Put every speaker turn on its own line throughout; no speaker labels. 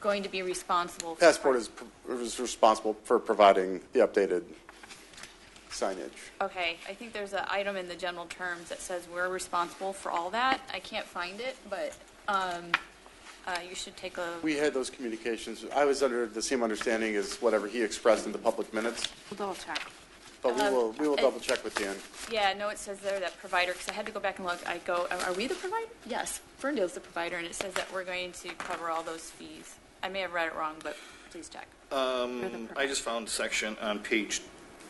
going to be responsible? for-
Passport is, pr- is responsible for providing the updated signage.
Okay, I think there's an item in the general terms that says we're responsible for all that. I can't find it, but um, uh, you should take a,
We had those communications, I was under the same understanding as whatever he expressed in the public minutes,
We'll double check.
but we
Um,
will, we will
it-
double check with Dan.
yeah, no, it says there that provider, because I had to go back and look. I go, are are we the provider? Yes, Ferndale's the provider, and it says that we're going to cover all those fees. I may have read it wrong, but please check.
You're
Um,
the
I just found section on page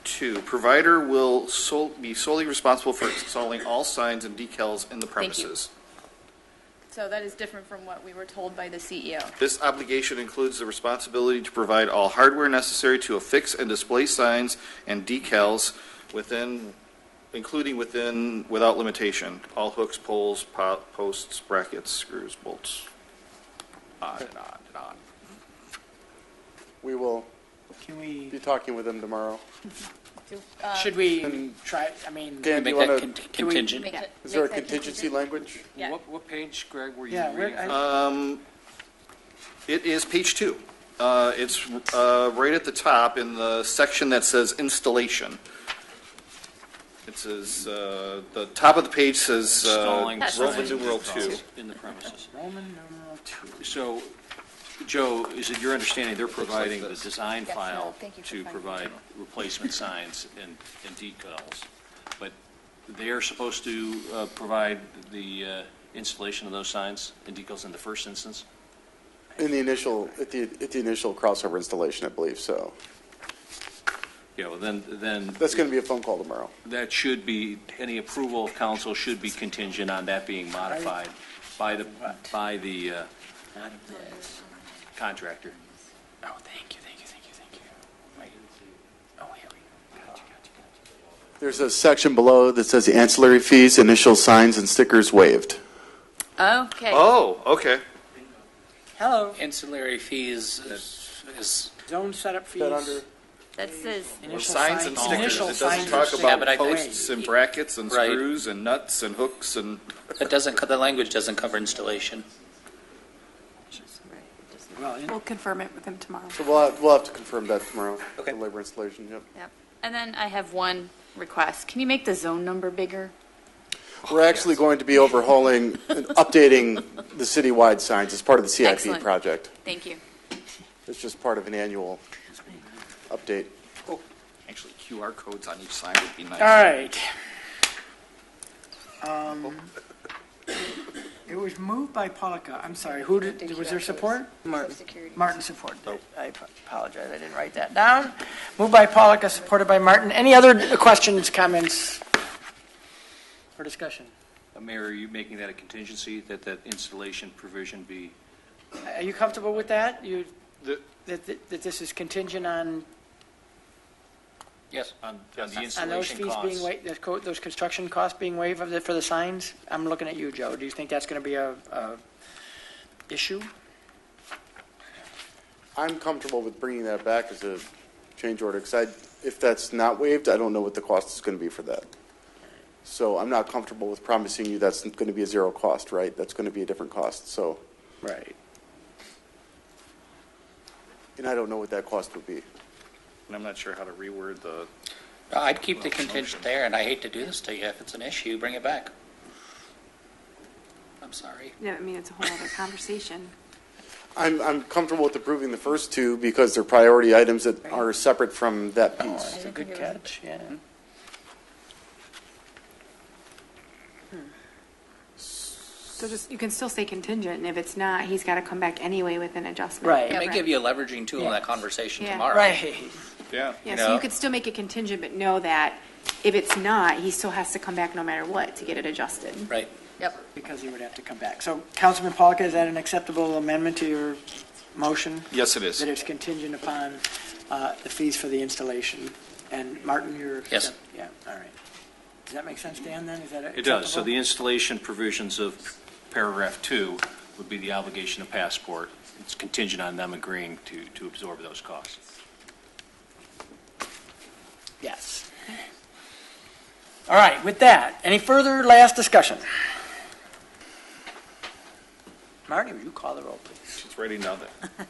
two. Provider will sol- be solely responsible for installing all signs and decals in the
Thank you.
premises.
So that is different from what we were told by the E CEO.
This obligation includes the responsibility to provide all hardware necessary to affix and display signs and decals within, including within, without limitation, all hooks, poles, po- posts, brackets, screws, bolts, on and on and on.
We will
Can we,
be talking with him tomorrow.
Uh,
should we try, I mean,
Dan, do you want
Make that
to,
con-
Can we-
contingent.
Make it-
is there a
make that
contingency language?
Yeah.
What, what page, Greg, were you
Yeah, where-
reading?
I-
from?
Um, it is page two. Uh, it's, uh, right at the top in the section that says installation. It says, uh, the top of the page says, uh,
Installing
Roman
signs
numeral
and
two.
decals In the premises.
Roman numeral two?
So, Joe, is it your understanding they're
like
providing the
this.
design
Yes, no,
file
thank you for
to
finding
provide replacement signs and, and decals? But they're supposed to uh, provide the uh, installation of those signs and decals in the first instance?
In the initial, at the, at the initial crossover installation, I believe, so.
Yeah, well, then, then.
That's going to be a phone call tomorrow.
That should be, any approval of council should be contingent on that being modified by the, by the uh, contractor.
Oh, thank you, thank you, thank you, thank you. Wait. Oh, here we go. Gotcha, gotcha, gotcha.
There's a section below that says ancillary fees, initial signs and stickers waived.
Okay,
Oh, okay.
Hello,
Ancillary fees is- is,
zone setup fees.
That under-
that says,
initial
Signs and stickers.
initial
It
signs
doesn't
and
talk
Yeah, but I
about
think-
posts and brackets and
Right.
screws and nuts and hooks and,
that doesn't, co- the language doesn't cover installation.
stickers. Well, in-
We'll confirm it with him tomorrow.
So we'll, have- we'll have to confirm that tomorrow.
Okay.
The labor installation, yep.
yep. And then I have one request. Can you make the zone number bigger?
We're actually going to be overhauling and updating the citywide signs as part of the CIP
Excellent.
project.
Thank you.
It's just part of an annual update.
actually QR codes on each sign would be nice.
all right. Um, It was moved by Polika, I'm sorry, who did, was there support? Martin. Martin supported it. I ap- apologize, I didn't write that down. Moved by Polika, supported by Martin. Any other questions, comments, or discussion?
Uh, Mayor, are you making that a contingency, that that installation provision be?
Are you comfortable with that? You,
The-
that, that that this is contingent on,
Yes. On on the
on those
installation
fees being
costs?
waived, those co- those construction costs being waived of the- for the signs? I'm looking at you, Joe. Do you think that's going to be a, a issue?
I'm comfortable with bringing that back as a change order, because I, if that's not waived, I don't know what the cost is going to be for that. So I'm not comfortable with promising you that's going to be a zero cost, right? That's going to be a different cost, so,
Right.
and I don't know what that cost would be.
And I'm not sure how to reword the,
No, I'd keep the contingent there, and I hate to do this to you. If it's an issue, bring it back. I'm sorry.
Yeah, I mean, it's a whole other conversation.
I'm, I'm comfortable with approving the first two because they're priority items that are separate from that piece.
That's a good catch, yeah.
So just, you can still say contingent, and if it's not, he's got to come back anyway with an adjustment.
Right.
It may
right.
give you a leveraging tool in that
Yeah.
conversation
Yeah.
tomorrow.
Right.
yeah.
Yeah,
you
so you
know.
could still make it contingent, but know that if it's not, he still has to come back no matter what to get it adjusted.
Right.
Because he would have to come back. So Councilman Polka, is that an acceptable amendment to your motion?
Yes, it is.
That it's contingent upon uh, the fees for the installation? And Martin, you're?
Yes.
Yeah, all right. Does that make sense, Dan, then? Is that
It does. So
acceptable?
the installation provisions of paragraph two would be the obligation of passport. It's contingent on them agreeing to, to absorb those costs.
Yes. All right, with that, any further last discussion? Marty, will you call the roll, please?
She's writing down there.